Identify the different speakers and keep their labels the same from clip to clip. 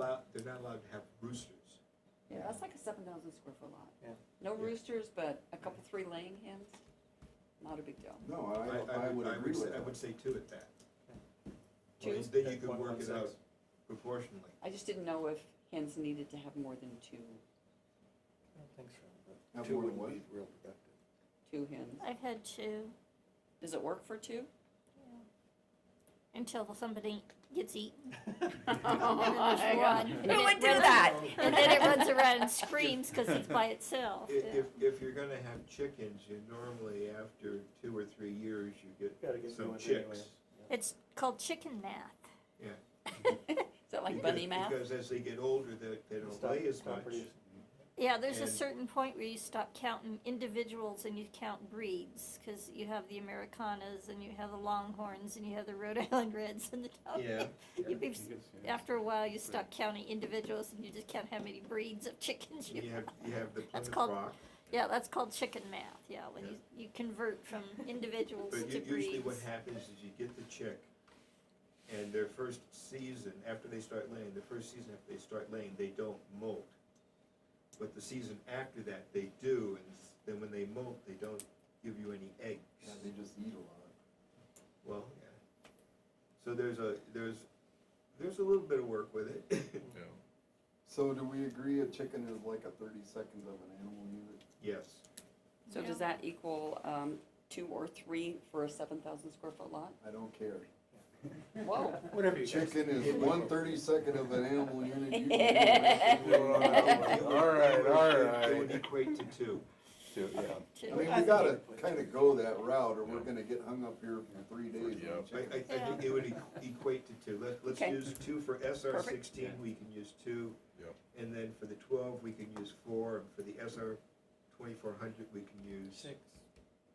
Speaker 1: they're not allowed to have roosters.
Speaker 2: Yeah, that's like a seven thousand square foot lot.
Speaker 3: Yeah.
Speaker 2: No
Speaker 1: Yeah.
Speaker 2: roosters, but a couple, three laying hens, not a big deal.
Speaker 4: No, I, I would agree
Speaker 1: say-
Speaker 4: with
Speaker 1: I would
Speaker 4: that.
Speaker 1: say two at that.
Speaker 2: Two?
Speaker 1: Because Then you
Speaker 3: At
Speaker 1: could work it
Speaker 3: 1.16.
Speaker 1: out proportionally.
Speaker 2: I just didn't know if hens needed to have more than two,
Speaker 3: I don't think so.
Speaker 4: Have
Speaker 3: Two
Speaker 4: more than
Speaker 3: would
Speaker 4: one?
Speaker 3: be real productive.
Speaker 2: two hens.
Speaker 5: I've had two.
Speaker 2: Does it work for two?
Speaker 5: Until somebody gets eaten.
Speaker 2: Oh I got-
Speaker 5: one.
Speaker 2: Who
Speaker 5: And it
Speaker 2: would do
Speaker 5: runs-
Speaker 2: that?
Speaker 5: And then it runs around and screams because it's by
Speaker 1: I-
Speaker 5: itself.
Speaker 1: If, if, if you're gonna have chickens, you normally, after two or three years, you
Speaker 3: Gotta
Speaker 1: get
Speaker 3: get
Speaker 1: some
Speaker 3: going anyway.
Speaker 1: chicks.
Speaker 5: It's called chicken math.
Speaker 1: Yeah.
Speaker 2: Is that like
Speaker 1: Because-
Speaker 2: bunny math?
Speaker 1: Because as they get older, they, they don't
Speaker 3: Stop-
Speaker 1: lay as
Speaker 3: stop
Speaker 1: much.
Speaker 3: producing.
Speaker 5: Yeah, there's a
Speaker 1: And-
Speaker 5: certain point where you stop counting individuals and you count breeds because you have the Americanas and you have the Longhorns and you have the Rhode Island Reds and the
Speaker 1: Yeah.
Speaker 5: You be- After a while, you stop counting individuals and you just count how many breeds of chickens you
Speaker 1: You
Speaker 5: have.
Speaker 1: have, you have the
Speaker 5: That's
Speaker 1: Plymouth
Speaker 5: called-
Speaker 1: Rock,
Speaker 5: Yeah, that's called chicken math. Yeah, when
Speaker 1: Yeah.
Speaker 5: you, you convert from individuals
Speaker 1: but
Speaker 5: to
Speaker 1: u- usually what
Speaker 5: breeds.
Speaker 1: happens is you get the chick, and their first season, after they start laying, the first season after they start laying, they don't molt. But the season after that, they do, and s- then when they molt, they don't give you any eggs.
Speaker 4: Yeah, they just eat a lot.
Speaker 1: Well, yeah. So there's a, there's, there's a little bit of work with it.
Speaker 4: So do we agree a chicken is like a thirty seconds of an animal unit?
Speaker 1: Yes,
Speaker 2: So does that equal, um, two or three for a seven thousand square foot lot?
Speaker 4: I don't care.
Speaker 2: Whoa.
Speaker 3: Whatever you guys.
Speaker 4: Chicken is one thirty second of an animal unit. You can do it. You know what I mean? All right, all
Speaker 1: It would
Speaker 4: right.
Speaker 1: equate to two.
Speaker 6: Yeah.
Speaker 4: I
Speaker 5: Chicken
Speaker 4: mean, we gotta kinda go that route or we're gonna get hung up here for three days.
Speaker 6: Yeah.
Speaker 4: on
Speaker 1: I, I, I
Speaker 4: chicken.
Speaker 1: think it would e- equate to two. Let, let's
Speaker 2: Okay.
Speaker 1: use two for SR
Speaker 2: Perfect.
Speaker 1: sixteen, we can use two.
Speaker 6: Yep.
Speaker 1: And then for the twelve, we can use four, and for the SR twenty-four hundred, we can use
Speaker 3: Six.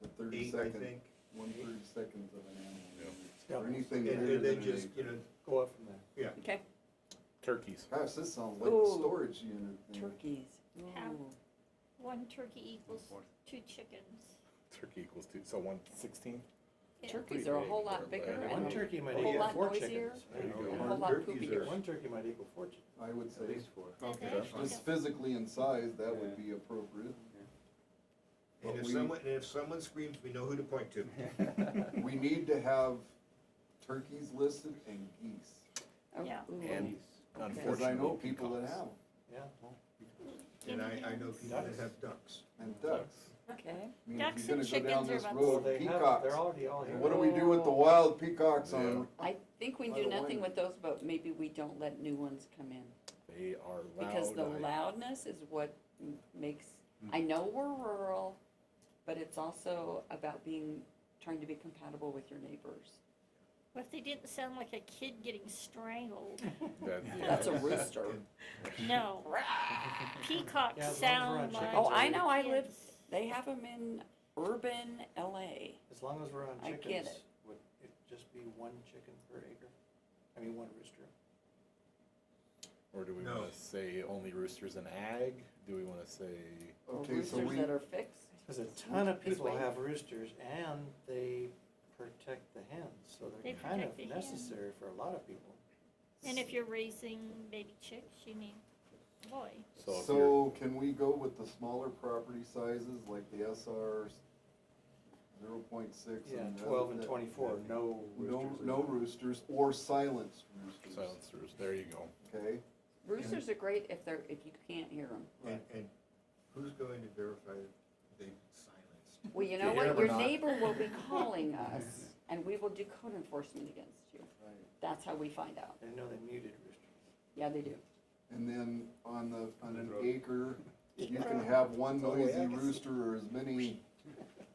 Speaker 4: The thirty
Speaker 1: eight, I
Speaker 4: second,
Speaker 1: think.
Speaker 4: one thirty seconds of an animal
Speaker 6: Yeah.
Speaker 4: unit.
Speaker 3: Yeah.
Speaker 4: Or anything
Speaker 1: And,
Speaker 4: bigger
Speaker 1: and
Speaker 4: than
Speaker 1: then
Speaker 4: an
Speaker 1: just, you
Speaker 4: acre.
Speaker 1: know,
Speaker 3: Go up from there.
Speaker 1: yeah,
Speaker 2: Okay,
Speaker 6: Turkeys.
Speaker 4: Gosh, this sounds like a
Speaker 2: Ooh.
Speaker 4: storage unit. thing.
Speaker 2: turkeys. Ooh.
Speaker 5: One turkey equals two chickens.
Speaker 6: Turkey equals two, so one sixteen?
Speaker 5: Yeah.
Speaker 2: Turkeys are a whole lot
Speaker 6: Pretty big.
Speaker 2: bigger
Speaker 3: One
Speaker 2: and
Speaker 3: turkey might
Speaker 2: A whole
Speaker 3: equal
Speaker 2: lot
Speaker 3: four
Speaker 2: noisier.
Speaker 3: chickens.
Speaker 6: There you
Speaker 2: a
Speaker 6: go.
Speaker 2: whole lot
Speaker 1: Turkeys
Speaker 2: poopier.
Speaker 1: are-
Speaker 3: One turkey might equal four chickens.
Speaker 4: I would
Speaker 1: at
Speaker 4: say,
Speaker 1: least four.
Speaker 5: Okay.
Speaker 4: just physically in size, that would be appropriate.
Speaker 1: And
Speaker 4: But
Speaker 1: if
Speaker 4: we-
Speaker 1: someone, and if someone screams, we know who to point to.
Speaker 4: We need to have turkeys listed and geese,
Speaker 2: Oh,
Speaker 5: Yeah.
Speaker 2: ooh.
Speaker 6: And
Speaker 4: because I know
Speaker 6: unfortunately,
Speaker 4: people that have,
Speaker 6: peacocks.
Speaker 4: 'em,
Speaker 3: Yeah.
Speaker 1: And I, I know people that have ducks.
Speaker 4: and ducks.
Speaker 2: Okay.
Speaker 4: I mean, if
Speaker 5: Ducks
Speaker 4: you're
Speaker 5: and
Speaker 4: gonna go down
Speaker 5: chickens are
Speaker 4: this
Speaker 5: about the
Speaker 3: Well,
Speaker 4: road,
Speaker 3: they have, they're
Speaker 4: peacocks,
Speaker 3: already all here.
Speaker 4: what do we do with the wild peacocks on?
Speaker 2: I think we
Speaker 4: By
Speaker 2: do
Speaker 4: the way-
Speaker 2: nothing with those, but maybe we don't let new ones come in.
Speaker 6: They are loud.
Speaker 2: Because the
Speaker 6: I-
Speaker 2: loudness is what m- makes, I know we're rural, but it's also about being, trying to be compatible with your neighbors.
Speaker 5: What if they didn't sound like a kid getting strangled?
Speaker 6: that- yeah.
Speaker 2: That's a rooster.
Speaker 1: And-
Speaker 5: No. Peacocks
Speaker 3: Yeah, as long as we're on
Speaker 5: sound
Speaker 3: chickens,
Speaker 5: like.
Speaker 2: Oh, I know, I
Speaker 5: kids.
Speaker 2: live, they have them in urban LA.
Speaker 3: As long as we're on
Speaker 2: I get
Speaker 3: chickens,
Speaker 2: it.
Speaker 3: would it just be one chicken per acre? I mean, one rooster.
Speaker 6: Or do we
Speaker 1: No.
Speaker 6: wanna say only roosters and ag? Do we wanna say,
Speaker 2: or
Speaker 4: Okay, so
Speaker 2: Roosters
Speaker 4: we,
Speaker 2: that are fixed.
Speaker 3: Because a ton of
Speaker 2: This
Speaker 3: people
Speaker 2: way.
Speaker 3: have roosters and they protect the hens, so
Speaker 5: They
Speaker 3: they're kind
Speaker 5: protect
Speaker 3: of
Speaker 5: the hen.
Speaker 3: necessary for a lot of people.
Speaker 5: And if you're raising baby chicks, you need a boy.
Speaker 6: so if you're,
Speaker 4: so can we go with the smaller property sizes, like the SRs, zero point six?
Speaker 3: Yeah, twelve and twenty-four, no
Speaker 4: No,
Speaker 3: roosters.
Speaker 4: no roosters, or silenced roosters.
Speaker 6: silenced roosters, there you go.
Speaker 4: Okay,
Speaker 2: Roosters are great if they're, if you can't hear them.
Speaker 1: And, and who's going to verify that they've silenced?
Speaker 2: Well, you
Speaker 6: Do
Speaker 2: know
Speaker 6: you
Speaker 2: what,
Speaker 6: hear 'em or
Speaker 2: your
Speaker 6: not?
Speaker 2: neighbor will be calling us, and we will do code enforcement against you.
Speaker 4: right.
Speaker 2: That's how we find out.
Speaker 3: I know they muted roosters.
Speaker 2: Yeah, they do.
Speaker 4: And then on the, on an
Speaker 1: Throw.
Speaker 4: acre, you
Speaker 2: Acre.
Speaker 4: can have one
Speaker 2: Oh,
Speaker 3: That's all the way I
Speaker 4: noisy
Speaker 3: can see.
Speaker 4: rooster or as many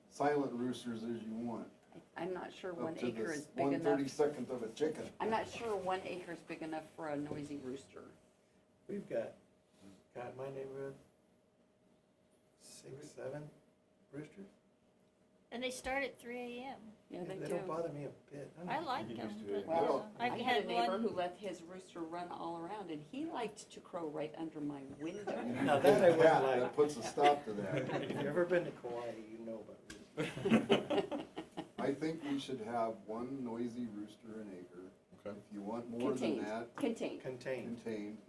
Speaker 4: silent roosters as you want.
Speaker 2: I'm not sure one
Speaker 4: Up to
Speaker 2: acre
Speaker 4: the
Speaker 2: is big
Speaker 4: one thirty
Speaker 2: enough.
Speaker 4: second of a chicken.
Speaker 2: I'm not sure one acre is big enough for a noisy rooster.
Speaker 3: We've got, God, my neighborhood, six, seven roosters.
Speaker 5: And they start at three AM.
Speaker 2: Yeah, they
Speaker 3: They don't
Speaker 2: do.
Speaker 3: bother me a bit.
Speaker 5: I like them, but uh,
Speaker 2: Well, I
Speaker 5: I've
Speaker 2: had a
Speaker 5: had
Speaker 2: neighbor who
Speaker 5: one.
Speaker 2: let his rooster run all around, and he liked to crow right under my window.
Speaker 3: Now that I wouldn't
Speaker 4: Yeah,
Speaker 3: like.
Speaker 4: That puts a stop to that.
Speaker 3: If you've ever been to Kauai, you know about roosters.
Speaker 4: I think we should have one noisy rooster an acre.
Speaker 6: Okay.
Speaker 4: If you want more than
Speaker 2: Contained,
Speaker 4: that,
Speaker 2: contained.
Speaker 3: Contained.
Speaker 4: contained,